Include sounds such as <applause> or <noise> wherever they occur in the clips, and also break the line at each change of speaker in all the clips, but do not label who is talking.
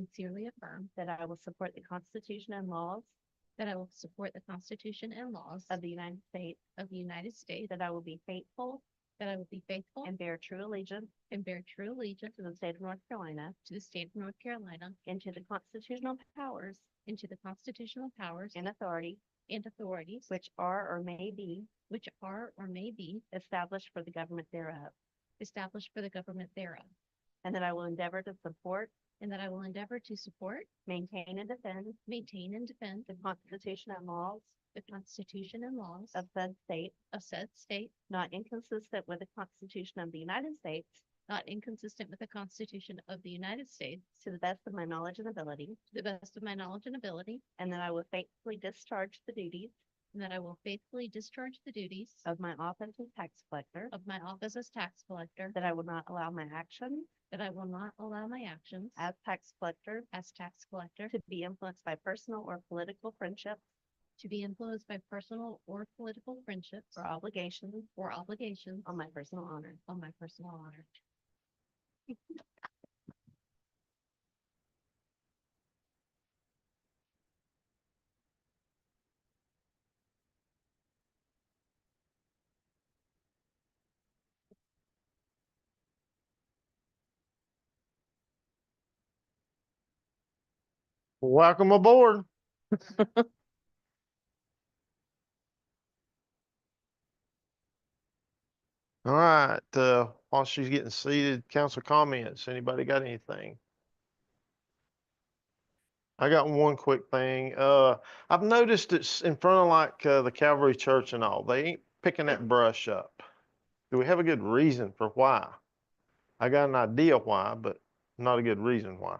sincerely affirm
that I will support the Constitution and laws
that I will support the Constitution and laws
of the United States,
of the United States,
that I will be faithful
that I will be faithful
and bear true allegiance
and bear true allegiance
to the state of North Carolina
to the state of North Carolina
and to the constitutional powers
and to the constitutional powers
and authority
and authorities
which are or may be
which are or may be
established for the government thereof,
established for the government thereof,
and that I will endeavor to support,
and that I will endeavor to support,
maintain, and defend
maintain, and defend
the Constitution and laws
the Constitution and laws
of said state,
of said state,
not inconsistent with the Constitution of the United States,
not inconsistent with the Constitution of the United States,
to the best of my knowledge and ability,
to the best of my knowledge and ability,
and that I will faithfully discharge the duties
and that I will faithfully discharge the duties
of my office as tax collector,
of my office as tax collector,
that I will not allow my actions
that I will not allow my actions
as tax collector
as tax collector
to be influenced by personal or political friendships
to be influenced by personal or political friendships
or obligations
or obligations
on my personal honor.
on my personal honor.
Welcome aboard. <laughs> All right, uh, while she's getting seated, council comments, anybody got anything? I got one quick thing. Uh, I've noticed it's in front of like, uh, the Calvary Church and all, they ain't picking that brush up. Do we have a good reason for why? I got an idea why, but not a good reason why.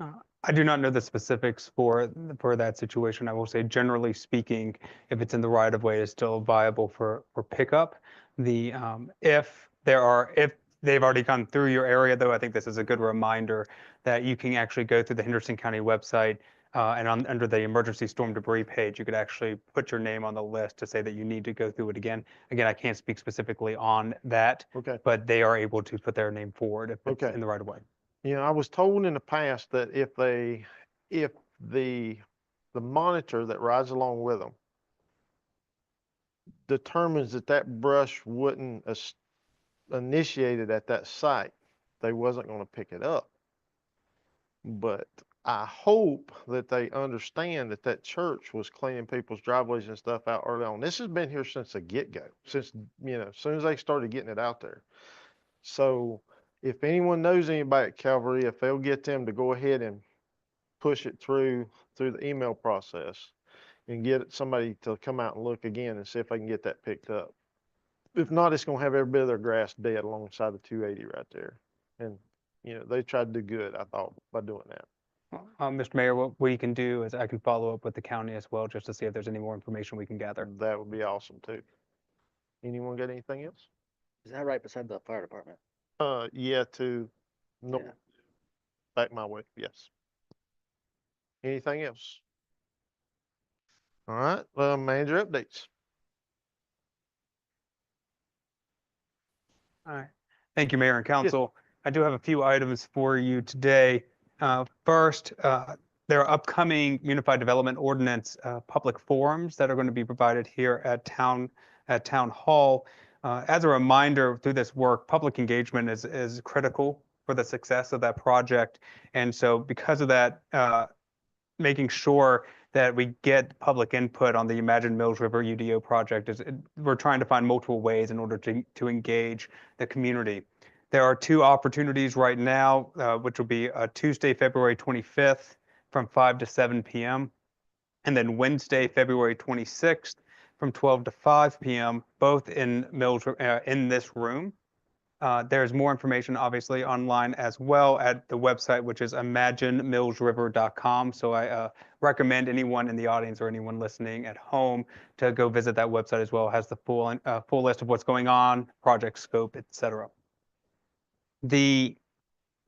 I do not know the specifics for, for that situation. I will say generally speaking, if it's in the right of way, it's still viable for, for pickup. The, um, if there are, if they've already gone through your area though, I think this is a good reminder that you can actually go through the Henderson County website. Uh, and on, under the emergency storm debris page, you could actually put your name on the list to say that you need to go through it again. Again, I can't speak specifically on that,
Okay.
but they are able to put their name forward if it's
Okay.
in the right of way.
You know, I was told in the past that if they, if the, the monitor that rides along with them determines that that brush wouldn't es- initiate it at that site, they wasn't gonna pick it up. But I hope that they understand that that church was cleaning people's driveways and stuff out early on. This has been here since the get-go, since, you know, as soon as they started getting it out there. So if anyone knows anybody at Calvary, if they'll get them to go ahead and push it through, through the email process and get somebody to come out and look again and see if they can get that picked up. If not, it's gonna have every bit of their grass dead alongside the two eighty right there. And, you know, they tried to do good, I thought, by doing that.
Uh, Mr. Mayor, what we can do is I can follow up with the county as well, just to see if there's any more information we can gather.
That would be awesome too. Anyone got anything else?
Is that right beside the fire department?
Uh, yeah, to, no,
Yeah.
back my way, yes. Anything else? All right, uh, manager updates.
All right. Thank you, Mayor and Council. I do have a few items for you today. Uh, First, uh, there are upcoming Unified Development Ordinance uh, public forums that are going to be provided here at Town, at Town Hall. Uh, As a reminder, through this work, public engagement is, is critical for the success of that project. And so because of that, uh, making sure that we get public input on the Imagine Mills River UDO project is, we're trying to find multiple ways in order to, to engage the community. There are two opportunities right now, uh, which will be uh, Tuesday, February 25th from 5 to 7 p.m. And then Wednesday, February 26th from 12 to 5 p.m., both in Mills, uh, in this room. Uh, There's more information, obviously, online as well at the website, which is imaginemillsriver.com. So I uh, recommend anyone in the audience or anyone listening at home to go visit that website as well. It has the full, uh, full list of what's going on, project scope, et cetera. The,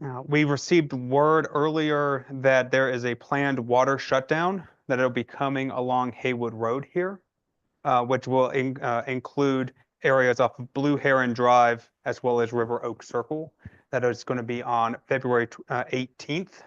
uh, we received word earlier that there is a planned water shutdown that it'll be coming along Haywood Road here, uh, which will in- uh, include areas off of Blue Heron Drive as well as River Oak Circle. That is going to be on February tw- uh, 18th,